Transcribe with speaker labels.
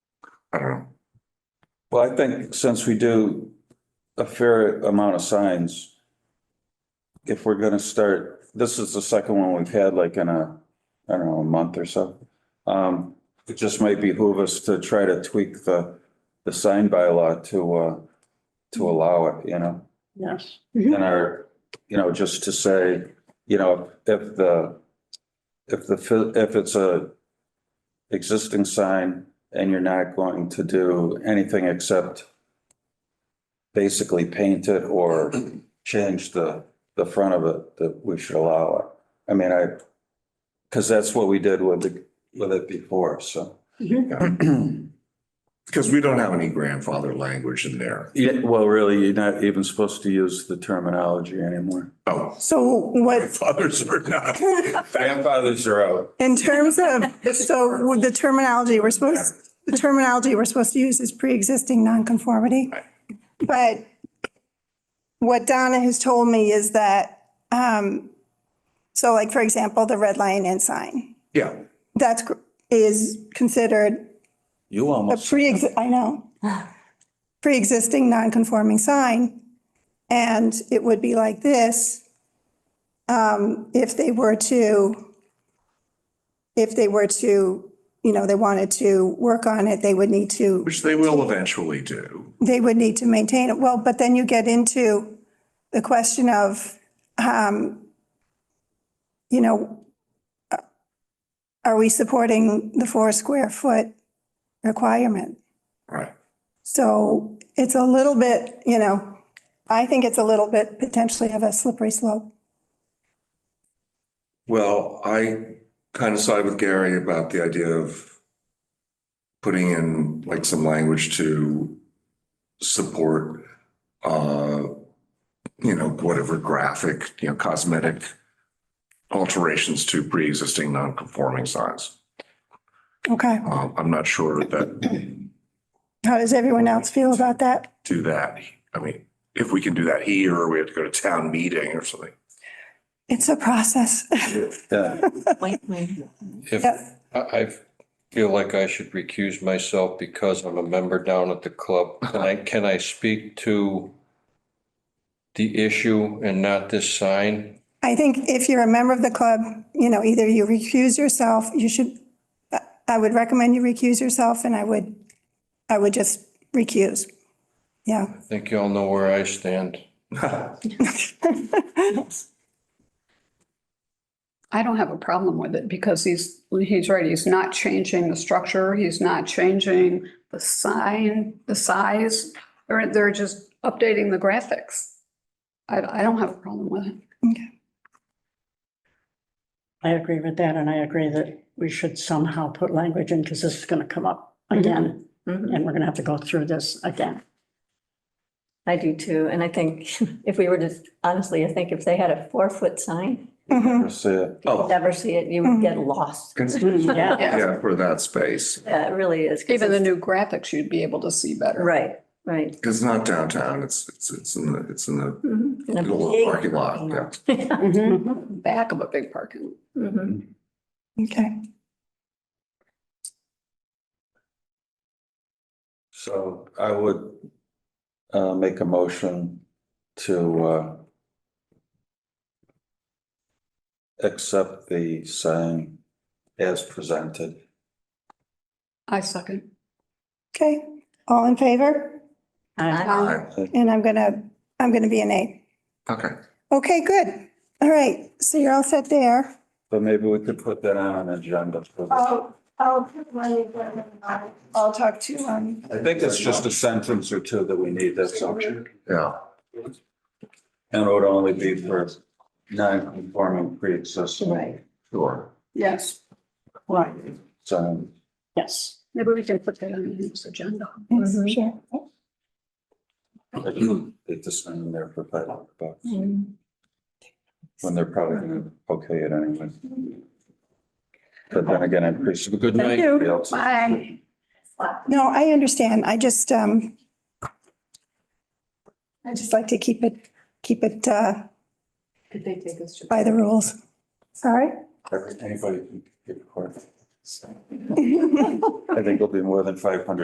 Speaker 1: I don't know.
Speaker 2: Well, I think since we do a fair amount of signs, if we're gonna start, this is the second one we've had like in a, I don't know, a month or so. Um, it just might behoove us to try to tweak the, the sign bylaw to, uh, to allow it, you know?
Speaker 3: Yes.
Speaker 2: And our, you know, just to say, you know, if the, if the, fi- if it's a existing sign and you're not going to do anything except basically paint it or change the, the front of it, that we should allow it. I mean, I, because that's what we did with the, with it before, so.
Speaker 1: Because we don't have any grandfather language in there.
Speaker 2: Yeah, well, really, you're not even supposed to use the terminology anymore.
Speaker 1: Oh,
Speaker 4: So what,
Speaker 1: fathers are not.
Speaker 2: Grandfathers are out.
Speaker 4: in terms of, so with the terminology we're supposed, the terminology we're supposed to use is pre-existing nonconformity. But what Donna has told me is that, um, so like, for example, the red lion inn sign,
Speaker 1: Yeah,
Speaker 4: that's, gr- is considered
Speaker 2: You
Speaker 4: a
Speaker 2: almost
Speaker 4: pre, I know, pre-existing non-conforming sign, and it would be like this um, if they were to, if they were to, you know, they wanted to work on it, they would need to,
Speaker 1: which they will eventually do.
Speaker 4: they would need to maintain it. Well, but then you get into the question of, um, you know, uh, are we supporting the four square foot requirement?
Speaker 1: Right.
Speaker 4: So it's a little bit, you know, I think it's a little bit potentially of a slippery slope.
Speaker 1: Well, I kind of side with Gary about the idea of putting in like some language to support, uh, you know, whatever graphic, you know, cosmetic alterations to pre-existing non-conforming signs.
Speaker 4: Okay.
Speaker 1: Um, I'm not sure that
Speaker 4: How does everyone else feel about that?
Speaker 1: do that. I mean, if we can do that here, or we have to go to town meeting or something.
Speaker 4: It's a process.
Speaker 2: Yeah.
Speaker 5: If,
Speaker 4: Yes.
Speaker 5: I, I feel like I should recuse myself because I'm a member down at the club. Can I, can I speak to the issue and not this sign?
Speaker 4: I think if you're a member of the club, you know, either you recuse yourself, you should, I would recommend you recuse yourself and I would, I would just recuse. Yeah.
Speaker 5: I think y'all know where I stand.
Speaker 3: I don't have a problem with it because he's, he's right, he's not changing the structure, he's not changing the sign, the size, or they're just updating the graphics. I, I don't have a problem with it.
Speaker 6: I agree with that, and I agree that we should somehow put language in, because this is gonna come up
Speaker 3: Mm-hmm.
Speaker 6: again,
Speaker 1: Mm-hmm.
Speaker 6: and we're gonna have to go through this again.
Speaker 7: I do too, and I think if we were to, honestly, I think if they had a four-foot sign,
Speaker 4: Mhm.
Speaker 1: Oh.
Speaker 7: you'd never see it, you would get lost.
Speaker 3: Mm-hmm.
Speaker 6: Yeah,
Speaker 3: Yeah,
Speaker 1: Yeah, for that space.
Speaker 7: Yeah, it really is. 'cause
Speaker 3: even the
Speaker 7: it's-
Speaker 3: new graphics you'd be able to see better.
Speaker 7: Right, right.
Speaker 1: It's not downtown. It's, it's, it's in the, it's in the
Speaker 7: Mm-hmm. In a
Speaker 1: little
Speaker 7: big Mm-hmm.
Speaker 1: parking lot. Yeah.
Speaker 7: lot.
Speaker 6: Mhm.
Speaker 3: Back of a big parking lot.
Speaker 7: Mhm.
Speaker 4: Okay.
Speaker 2: So I would uh, make a motion to uh, accept the sign as presented.
Speaker 3: I second.
Speaker 4: Okay. All in favor?
Speaker 6: I-
Speaker 7: I-
Speaker 4: And I'm gonna, I'm gonna be an A.
Speaker 1: Okay.
Speaker 4: Okay, good. All right. So you're all set there.
Speaker 2: But maybe we could put that on an agenda. for the-
Speaker 4: I'll, I'll put one, I'll talk to, um,
Speaker 2: I think it's just a sentence or two that we need, that's all. And
Speaker 1: Yeah.
Speaker 2: it would only be for non-conforming pre-existing
Speaker 7: Right.
Speaker 1: Sure.
Speaker 3: Yes.
Speaker 6: Right,
Speaker 2: sign.
Speaker 6: yes.
Speaker 3: Maybe we can put that on this agenda.
Speaker 4: yes,
Speaker 7: Mhm.
Speaker 4: sure.
Speaker 2: Get the sign in there for five hundred bucks, when they're probably gonna okay it anyway. But then again, I appreciate.
Speaker 5: Good
Speaker 7: Thank
Speaker 5: night.
Speaker 7: you.
Speaker 2: Bye.
Speaker 3: Bye.
Speaker 4: No, I understand. I just, um, I just like to keep it, keep it, uh,
Speaker 3: Did they take us to?
Speaker 4: by the rules. Sorry?
Speaker 2: Every- Anybody can get a quarter. I think it'll be more than five hundred